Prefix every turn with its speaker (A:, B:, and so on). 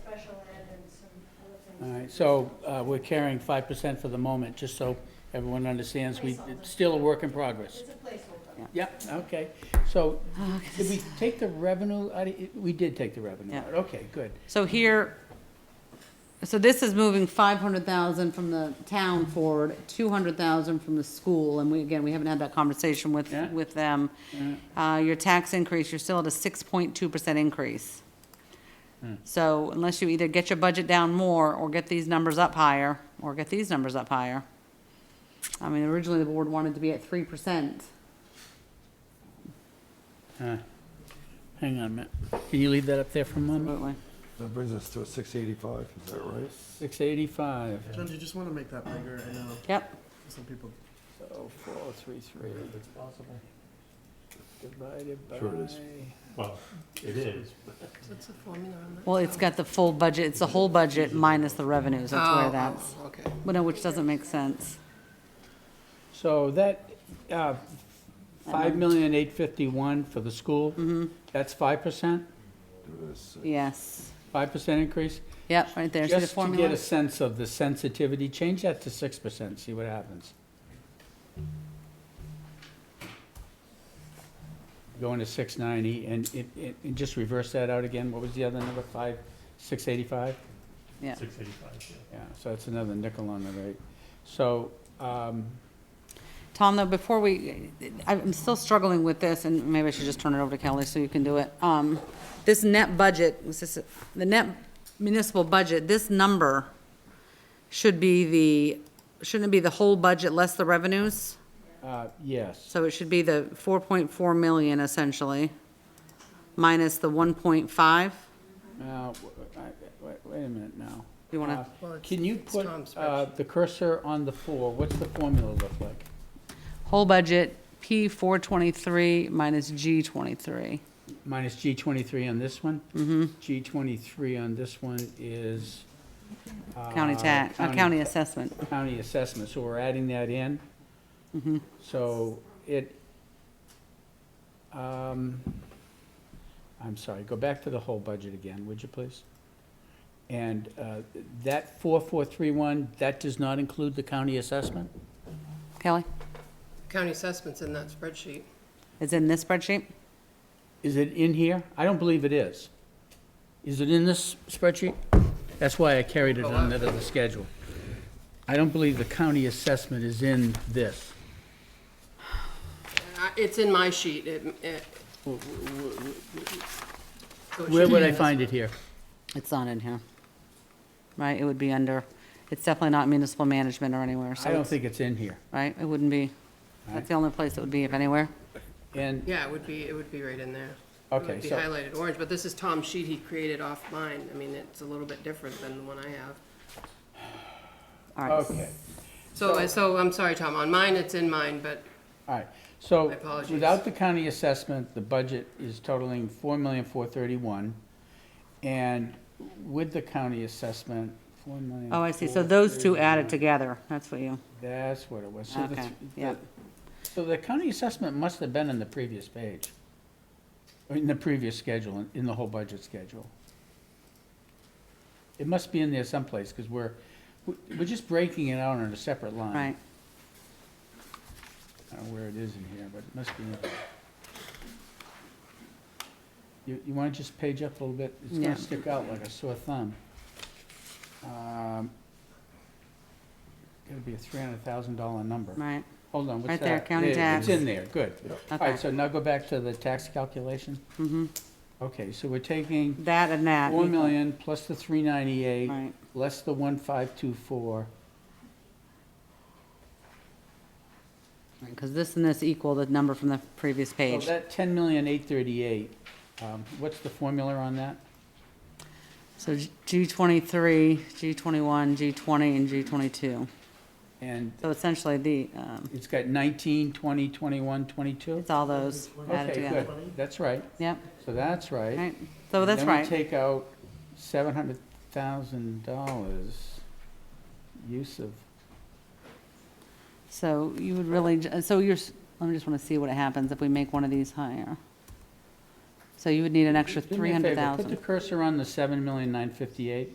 A: So uh, we're carrying five percent for the moment, just so everyone understands, we, it's still a work in progress.
B: It's a placeholder.
A: Yeah, okay, so, did we take the revenue, out of- we did take the revenue
C: Yeah.
A: out, okay, good.
C: So here, so this is moving five hundred thousand from the town forward, two hundred thousand from the school, and we, again, we haven't had that conversation with,
A: Yeah.
C: with them. Uh, your tax increase, you're still at a six point two percent increase. So unless you either get your budget down more, or get these numbers up higher, or get these numbers up higher. I mean, originally the board wanted to be at three percent.
A: Uh, Hang on a minute, can you leave that up there for a moment?
C: Absolutely.
D: That brings us to a six eighty-five, is that right?
A: Six eighty-five,
E: John, do you just want to make that bigger? I know
C: Yep,
E: some people.
A: so four, three, three,
F: It's possible.
A: divided by.
D: Sure it is.
F: Well, it is, but
B: What's the formula on that?
C: well, it's got the full budget, it's the whole budget minus the revenues, that's where that's,
E: okay.
C: well, no, which doesn't make sense.
A: So that, uh, five million eight fifty-one for the school, that's five percent,
D: Do this, uh,
C: Yes.
A: five percent increase?
C: Yep, right there. See the
A: Just to get
C: formula?
A: a sense of the sensitivity, change that to six percent, see what happens. Going to six ninety, and, it- it- and just reverse that out again, what was the other number, five, six eighty-five?
C: Yeah.
F: six eighty-five, yeah.
A: Yeah, so that's another nickel on the rate. So, um,
C: Tom, though, before we, I- I'm still struggling with this, and maybe I should just turn it over to Kelly so you can do it. Um, This net budget, was this, the net municipal budget, this number should be the, shouldn't it be the whole budget less the revenues?
A: uh, yes,
C: So it should be the 4.4 million essentially, minus the 1.5?
A: now, w- I- wait, wait a minute now.
C: You wanna-
A: Uh,
E: Well, it's-
A: Can you
E: it's
A: put,
E: Tom's
A: uh,
E: spreadsheet.
A: the cursor on the four, what's the formula look like?
C: Whole budget, P 423 minus G 23.
A: minus G twenty-three on this one. Mm-hmm. G twenty-three on this one is.
C: County
A: uh,
C: tax, uh, county assessment.
A: County assessment, so we're adding that in.
C: Mm-hmm.
A: So it, um, I'm sorry, go back to the whole budget again, would you please? And, uh, that four-four-three-one, that does not include the county assessment?
C: Kelly,
B: County assessments in that spreadsheet.
C: it's in this spreadsheet?
A: Is it in here? I don't believe it is. Is it in this spreadsheet? That's why I carried it on the the schedule. I don't believe the county assessment is in this.
B: Uh, It's in my sheet. It- it- So it
A: Where
B: should
A: would
B: be
A: I
B: in this
A: find
B: one.
A: it here?
C: It's not in here. Right, it would be under, it's definitely not municipal management or anywhere, so,
A: I don't
C: it's-
A: think it's in here.
C: right, it wouldn't be. That's the only place it would be, if anywhere.
A: And,
B: Yeah, it would be, it would be right in there. It
A: okay,
B: would be
A: so,
B: highlighted orange, but this is Tom's sheet he created off mine. I mean, it's a little bit different than the one I have.
C: All right.
A: okay,
B: So, I- so I'm sorry, Tom, on mine, it's in mine, but
A: all right. So,
B: My apologies.
A: without the county assessment, the budget is totaling four million, four thirty-one. And with the county assessment, four million.
C: Oh, I see, so those two added together, that's what you,
A: That's what it was. So the
C: okay,
A: th- the-
C: yeah.
A: So the county assessment must have been in the previous page, or in the previous schedule, in- in the whole budget schedule. It must be in there someplace, because we're, we- we're just breaking it out on a separate line.
C: Right,
A: I don't know where it is in here, but it must be in there. You, you want to just page up a little bit? It's
C: Yeah.
A: going to stick out like a sore thumb. Um, Gotta be a three hundred thousand dollar number.
C: right,
A: Hold on, what's that?
C: Right there, county
A: There,
C: tax.
A: It's in there, good. All
C: okay.
A: right, so now go back to the tax calculation.
C: Mhm.
A: Okay, so we're taking
C: That and that.
A: four million plus the three ninety-eight,
C: Right,
A: less the one five two four.
C: because this and this equal the number from the previous
A: So
C: page.
A: Oh, that ten million eight thirty-eight, um, what's the formula on that?
C: So G twenty-three, G twenty-one, G twenty, and G twenty-two.
A: And
C: So essentially the, um,
A: it's got nineteen, twenty, twenty-one, twenty-two?
C: it's all those added
A: Okay,
C: together.
A: good, that's right,
C: Yep,
A: so that's right.
C: right, so that's right.
A: Then we take out seven hundred thousand dollars use of
C: So you would really, ju- so you're, s- I just want to see what happens if we make one of these higher. So you would need an extra
A: Do me a favor, Put
C: 300,000.
A: the cursor on the seven million nine fifty-eight.